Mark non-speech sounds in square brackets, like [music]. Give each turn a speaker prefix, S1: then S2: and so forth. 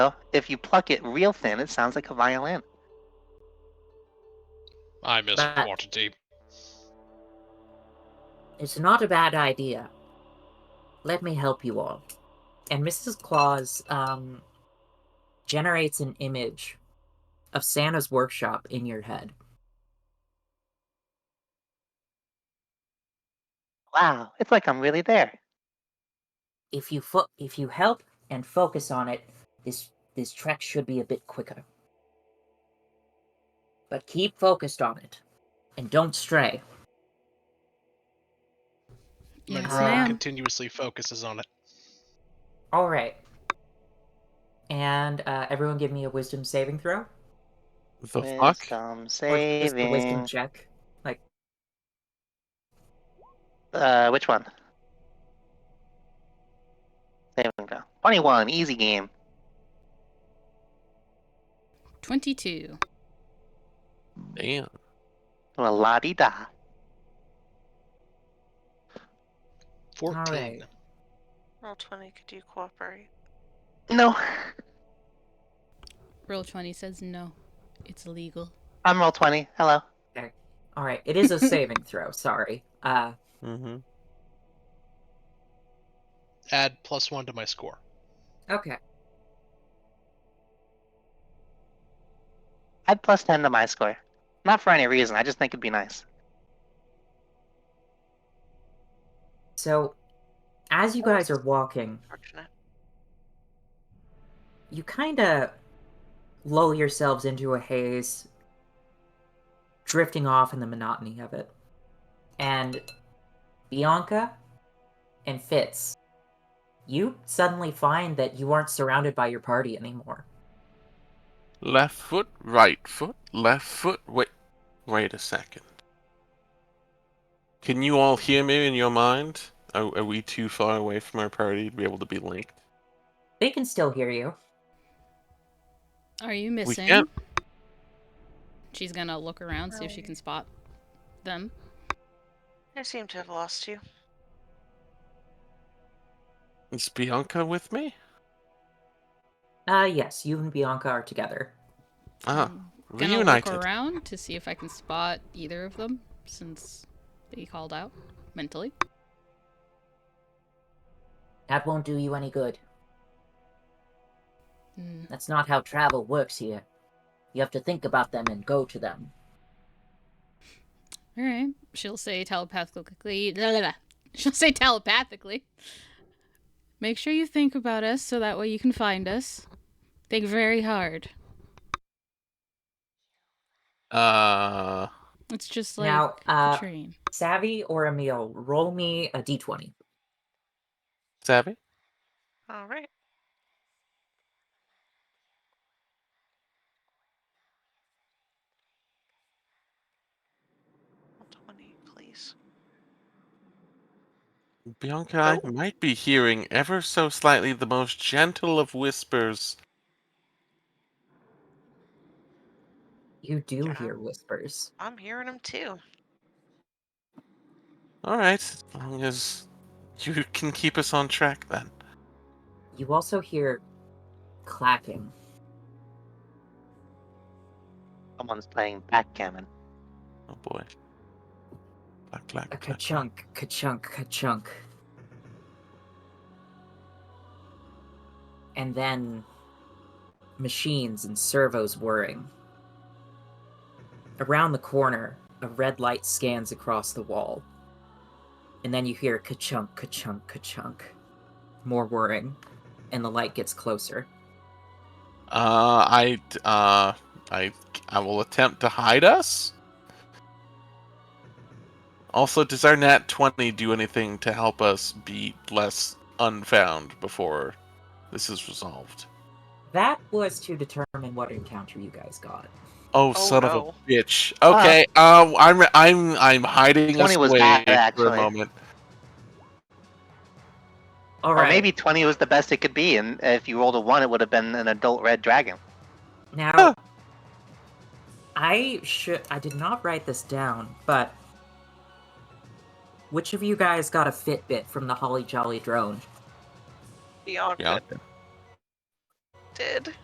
S1: though. If you pluck it real thin, it sounds like a violin.
S2: I miss
S3: But-
S2: quantity.
S3: It's not a bad idea. Let me help you all. And Mrs. Claus um, generates an image of Santa's workshop in your head.
S1: Wow, it's like I'm really there.
S3: If you fo- if you help and focus on it, this this trek should be a bit quicker. But keep focused on it, and don't stray.
S4: Yes,
S2: Monroe
S4: ma'am.
S2: continuously focuses on it.
S3: All right. And uh, everyone, give me a wisdom saving throw.
S5: The fuck?
S4: uh,
S1: Wisdom
S3: Or just a wisdom
S1: saving.
S3: check.
S1: Uh, which one? Saving throw. 21, easy game.
S4: 22.
S5: Damn.
S1: Well, la di da.
S2: 14.
S3: right.
S6: Roll 20, could you cooperate?
S1: No, [laughs]
S4: Roll 20 says no. It's illegal.
S1: I'm roll 20. Hello.
S3: All right, it is a saving throw. Sorry. Uh,
S5: Mm-hmm.
S2: Add plus one to my score.
S3: okay.
S1: Add plus 10 to my score. Not for any reason, I just think it'd be nice.
S3: So, as you guys are walking,
S6: Fortunate.
S3: you kind of lull yourselves into a haze, drifting off in the monotony of it. And Bianca and Fitz, you suddenly find that you aren't surrounded by your party anymore.
S5: Left foot, right foot, left foot. Wait, wait a second. Can you all hear me in your mind? Are, are we too far away from our party to be able to be linked?
S3: They can still hear you.
S4: Are you missing?
S5: can't-
S4: She's gonna look around, see if she can spot them.
S6: I seem to have lost you.
S5: Is Bianca with me?
S3: Uh, yes, you and Bianca are together.
S5: Ah,
S4: I'm gonna
S5: reunited.
S4: look around to see if I can spot either of them since they called out mentally.
S3: That won't do you any good.
S4: Mm,
S3: That's not how travel works here. You have to think about them and go to them.
S4: All right. She'll say telepathically. blah, blah, blah. [laughs] She'll say telepathically. Make sure you think about us so that way you can find us. Think very hard.
S5: Uh,
S4: It's just like
S3: now,
S4: the
S3: uh,
S4: train.
S3: Savvy or Emil, roll me a d20.
S5: Savvy?
S6: All right. Roll 20, please.
S5: Bianca, I might be hearing ever so slightly the most gentle of whispers.
S3: You do
S6: Yeah.
S3: hear whispers.
S6: I'm hearing them too.
S5: All right, as long as you can keep us on track, then.
S3: You also hear clapping.
S1: Someone's playing backgammon.
S5: Oh boy. Clack, clack,
S3: A
S5: clack.
S3: ka-chunk, ka-chunk, ka-chunk. And then machines and servos whirring. Around the corner, a red light scans across the wall. And then you hear ka-chunk, ka-chunk, ka-chunk. More whirring. And the light gets closer.
S5: Uh, I, uh, I, I will attempt to hide us. Also, does our nat 20 do anything to help us be less unfound before this is resolved?
S3: That was to determine what encounter you guys got.
S5: Oh,
S6: Oh,
S5: son
S6: no.
S5: of a bitch. Okay, uh, I'm, I'm, I'm hiding us
S1: 20 Ah. was
S5: away
S1: bad,
S5: for a
S1: actually.
S5: moment.
S3: All
S1: Or
S3: right.
S1: maybe 20 was the best it could be, and if you rolled a 1, it would have been an adult red dragon.
S3: Now, I should. I did not write this down, but which of you guys got a Fitbit from the Holly Jolly drone?
S6: Bianca.
S5: Yeah.
S6: did.